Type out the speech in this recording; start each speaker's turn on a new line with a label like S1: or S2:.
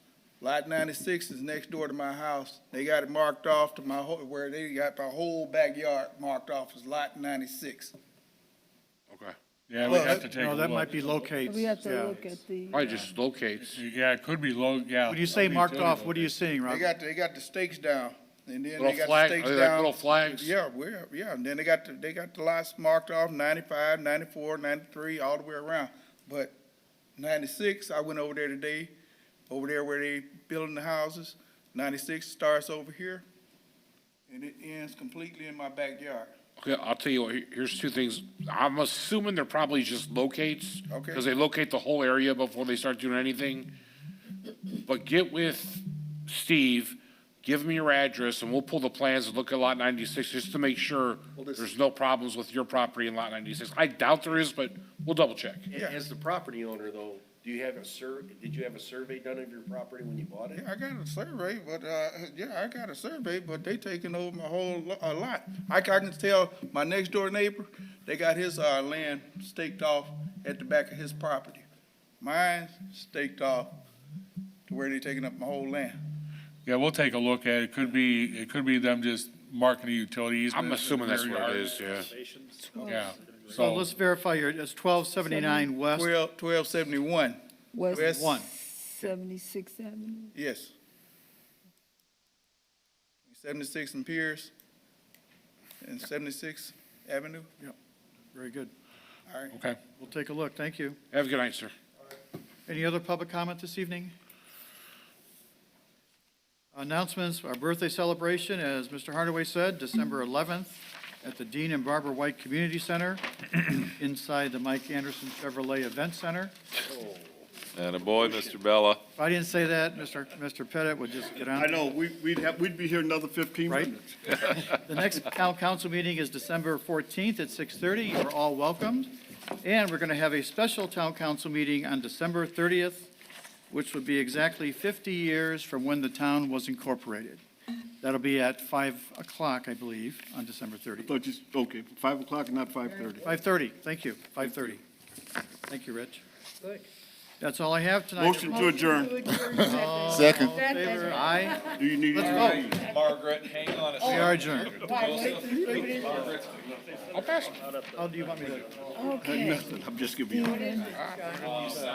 S1: Lot ninety-six is next door to my house. They got it marked off to my, whole- where they got my whole backyard marked off as lot ninety-six.
S2: Okay.
S3: Yeah, we
S1: Well,
S3: have to take a
S4: No, that
S3: look.
S4: might be locates,
S5: We have to
S4: yeah.
S5: look at the,
S2: Probably just locates.
S3: Yeah, it could be low, yeah.
S4: When you say marked off, what are you seeing,
S1: They
S4: Rob?
S1: got, they got the stakes down, and then
S2: Little
S1: they got the
S2: flag,
S1: stakes
S2: are they like
S1: down.
S2: little flags?
S1: Yeah, we're, yeah, and then they got, the they got the lots marked off, 95, 94, 93, all the way around. But ninety-six, I went over there today, over there where they building the houses, ninety-six starts over here, and it ends completely in my backyard.
S2: Okay, I'll tell you what, here- here's two things. I'm assuming they're probably just locates.
S1: Okay.
S2: Because they locate the whole area before they start doing anything. But get with Steve, give me your address, and we'll pull the plans and look at Lot 96, just to make sure
S6: Well, this-
S2: there's no problems with your property in Lot 96. I doubt there is, but we'll double check.
S6: A- As the property owner, though, do you have a sur, did you have a survey done of your property when you bought it?
S1: Yeah, I got a survey, but, uh, yeah, I got a survey, but they taking over my whole lo- uh, lot. I ca- I can tell my next door neighbor, they got his, uh, land staked off at the back of his property. Mine staked off to where they taking up my whole land.
S3: Yeah, we'll take a look at it. It could be, it could be them just marking a utility easement.
S2: I'm assuming that's
S3: in
S2: what
S3: their
S2: it is, yeah.
S3: yard. Yeah.
S4: So let's verify your, it's twelve seventy-nine west,
S1: Twelve, twelve seventy-one,
S5: West
S1: West-
S4: one.
S5: 76th Avenue.
S1: yes. Seventy-six and Pierce and seventy-six Avenue,
S4: Very good.
S1: all right.
S3: Okay.
S4: We'll take a look. Thank you.
S2: Have a good night, sir.
S4: Any other public comment this evening? Announcements, our birthday celebration, as Mr. Hardaway said, December 11th at the Dean and Barbara White Community Center inside the Mike Anderson Chevrolet Event Center.
S7: And a boy, Mr. Bella.
S4: If I didn't say that, Mr. Mr. Pettit would just get on.
S8: I know, we- we'd have, we'd be here another 15
S4: Right.
S8: minutes.
S4: The next town council meeting is December 14th at 6:30. You're all welcomed. And we're going to have a special town council meeting on December 30th, which would be exactly 50 years from when the town was incorporated. That'll be at 5 o'clock, I believe, on December 30th.
S8: Thought you s- okay, 5 o'clock, not 5:30.
S4: 5:30, thank you, 5:30. Thank you, Rich. That's all I have tonight.
S8: Motion to adjourn.
S5: Second.
S4: Favor, Aye,
S8: Do you need?
S4: let's vote.
S7: Margaret, hang on a
S4: We are adjourned.
S2: I'll pass
S4: How Oh, do you want me to?
S5: Okay.
S8: Nothing, I'm just giving you.